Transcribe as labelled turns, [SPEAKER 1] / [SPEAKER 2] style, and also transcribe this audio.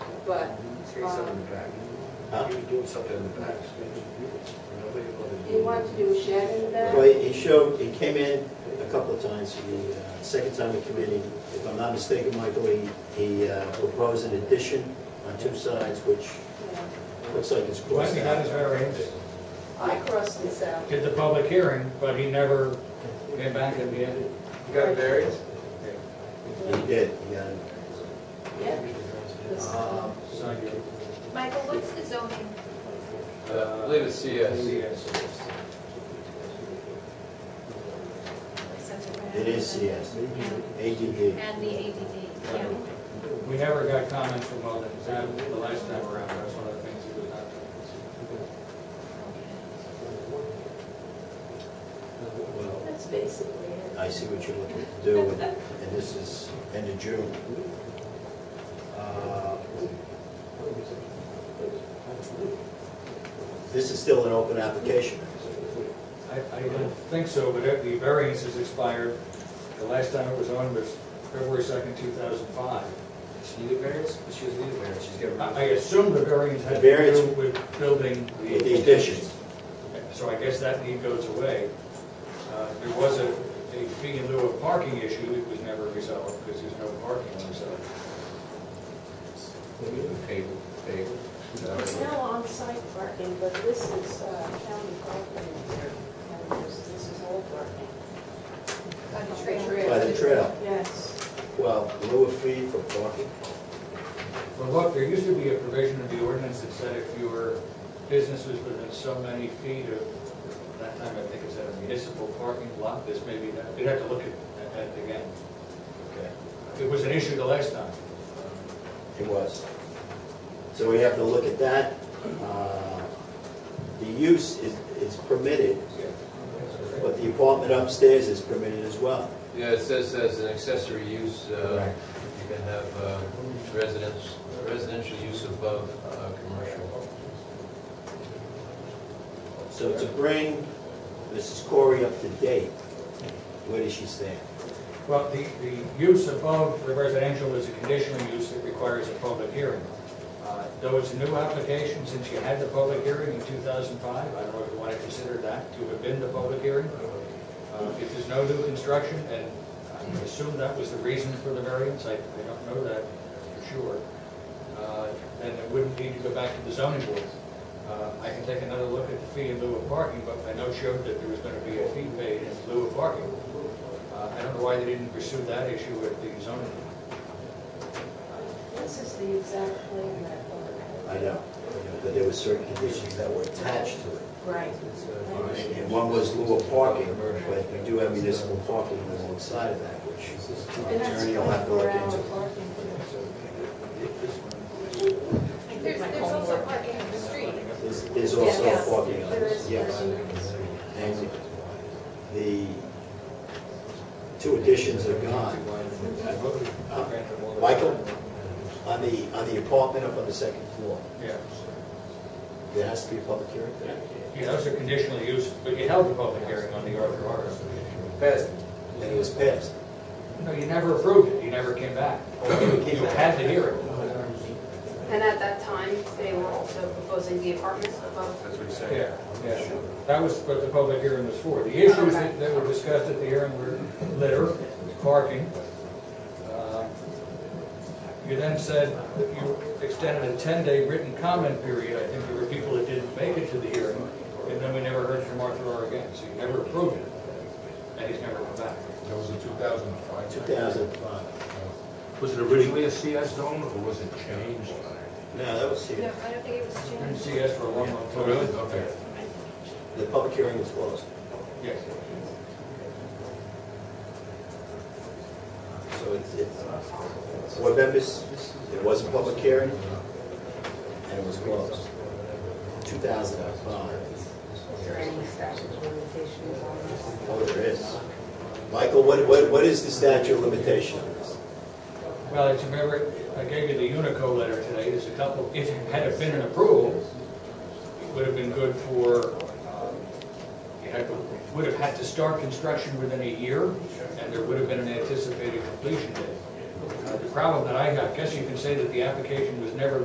[SPEAKER 1] but um,
[SPEAKER 2] Say something in the back.
[SPEAKER 3] Huh?
[SPEAKER 2] He was doing something in the back. Nobody wanted to-
[SPEAKER 1] he wanted to do a shed in the back.
[SPEAKER 3] Well, he showed, he came in a couple of times, the uh, second time he came in, he- if I'm not mistaken, Michael, he, he uh, proposed an addition on two sides, which
[SPEAKER 1] Yeah.
[SPEAKER 3] looks like it's
[SPEAKER 4] Well,
[SPEAKER 3] crossed
[SPEAKER 4] he got his
[SPEAKER 3] out.
[SPEAKER 4] variance,
[SPEAKER 1] I crossed this out.
[SPEAKER 4] did the public hearing, but he never came back in the end.
[SPEAKER 5] You got a variance?
[SPEAKER 3] He did, he got it.
[SPEAKER 1] Yeah. This-
[SPEAKER 3] Um,
[SPEAKER 6] Michael, what's the zoning?
[SPEAKER 5] Uh, I believe it's CS.
[SPEAKER 3] It is CS, ADD.
[SPEAKER 6] And the ADD, yeah.
[SPEAKER 4] We never got comments from Weldon, that was the last time around, that's one of the things he was not
[SPEAKER 3] Well,
[SPEAKER 1] That's basically it.
[SPEAKER 3] I see what you're looking to do, and and this is end of June. Uh, This is still an open application.
[SPEAKER 4] I, I don't think so, but it- the variance has expired, the last time it was on was February second, two thousand five.
[SPEAKER 5] She needed variance? She doesn't need a variance, she's
[SPEAKER 4] I,
[SPEAKER 5] got
[SPEAKER 4] I assume the variance had to
[SPEAKER 3] Variance-
[SPEAKER 4] do with building the.
[SPEAKER 3] The addition,
[SPEAKER 4] So I guess that need goes away. Uh, There was a, a fee in lieu of parking issue that was never resolved because there's no parking on the side.
[SPEAKER 5] a table, table.
[SPEAKER 1] It's
[SPEAKER 5] No.
[SPEAKER 1] now on-site parking, but this is uh, county parking. And this this is all parking.
[SPEAKER 6] By the trail.
[SPEAKER 3] by the trail.
[SPEAKER 1] Yes.
[SPEAKER 3] Well, lower fee for parking,
[SPEAKER 4] Well, look, there used to be a provision in the ordinance that said if your business was within so many feet of, that time I think it said a municipal parking lot, this may be, that. we'd have to look at, at that again.
[SPEAKER 3] okay,
[SPEAKER 4] It was an issue the last time. Uh,
[SPEAKER 3] it was. So we have to look at that. Uh, The use is, is permitted, but the apartment upstairs is permitted as well.
[SPEAKER 5] Yeah, it says as an accessory use, uh, you can have uh, residence, residential use above uh, commercial.
[SPEAKER 3] So to bring Mrs. Corey up to date, where does she stand?
[SPEAKER 4] Well, the, the use above the residential is a conditional use that requires a public hearing. Uh, Those new applications, since you had the public hearing in 2005, I don't know if you want to consider that to have been the public hearing. Uh, If there's no new construction, and I assume that was the reason for the variance, I I don't know that for sure, uh, then it wouldn't need to go back to the zoning board. Uh, I can take another look at the fee in lieu of parking, but I know showed that there was going to be a fee paid in lieu of parking. Uh, I don't know why they didn't pursue that issue with the zoning.
[SPEAKER 1] This is the exact plan that.
[SPEAKER 3] I know, you know, that there were certain conditions that were attached to it.
[SPEAKER 1] Right.
[SPEAKER 5] It's, uh,
[SPEAKER 3] And- And one was lower parking, but we do have municipal parking alongside of that, which our
[SPEAKER 1] And that's
[SPEAKER 3] attorney will have to look into.
[SPEAKER 1] 24-hour parking.
[SPEAKER 6] There's, there's also parking in the street.
[SPEAKER 3] There's- There's also
[SPEAKER 1] Yes.
[SPEAKER 3] parking on
[SPEAKER 1] There
[SPEAKER 3] this,
[SPEAKER 1] is
[SPEAKER 3] yes.
[SPEAKER 1] parking on the street.
[SPEAKER 3] And the two additions are gone. Uh, Michael, on the, on the apartment up on the second floor,
[SPEAKER 4] Yeah,
[SPEAKER 3] there has to be a public hearing?
[SPEAKER 4] yeah, those are conditional use, but you held the public hearing on the Arthur Harris.
[SPEAKER 5] Passed.
[SPEAKER 3] And it was passed.
[SPEAKER 4] No, you never approved it, you never came back. You had the hearing.
[SPEAKER 7] And at that time, they were also proposing the apartments above.
[SPEAKER 5] That's what he's saying.
[SPEAKER 4] Yeah, yeah, that was what the public hearing was for. The issues that that were discussed at the hearing were litter, parking. Uh, You then said that you extended a 10-day written comment period. I think there were people that didn't make it to the hearing, and then we never heard from Arthur R. again, so you never approved it, and he's never come back.
[SPEAKER 8] That was in 2005.
[SPEAKER 3] 2005.
[SPEAKER 8] Was it originally a CS zone or was it changed?
[SPEAKER 3] No, that was
[SPEAKER 6] No,
[SPEAKER 3] here.
[SPEAKER 6] I don't think it was
[SPEAKER 4] Didn't
[SPEAKER 6] changed.
[SPEAKER 4] see us for a long, long time.
[SPEAKER 8] Okay.
[SPEAKER 3] The public hearing was closed.
[SPEAKER 4] Yes.
[SPEAKER 3] So it's, it's, board members, it was a public hearing, and it was closed. 2005.
[SPEAKER 7] Is there any statute of limitations on this?
[SPEAKER 3] Oh, there is. Michael, what, what, what is the statute of limitation on this?
[SPEAKER 4] Well, it's, remember, I gave you the Unico letter today, there's a couple, if it had have been an approval, it would have been good for, um, you had, would have had to start construction within a year, and there would have been an anticipated completion date. Uh, The problem that I got, I guess you can say that the application was never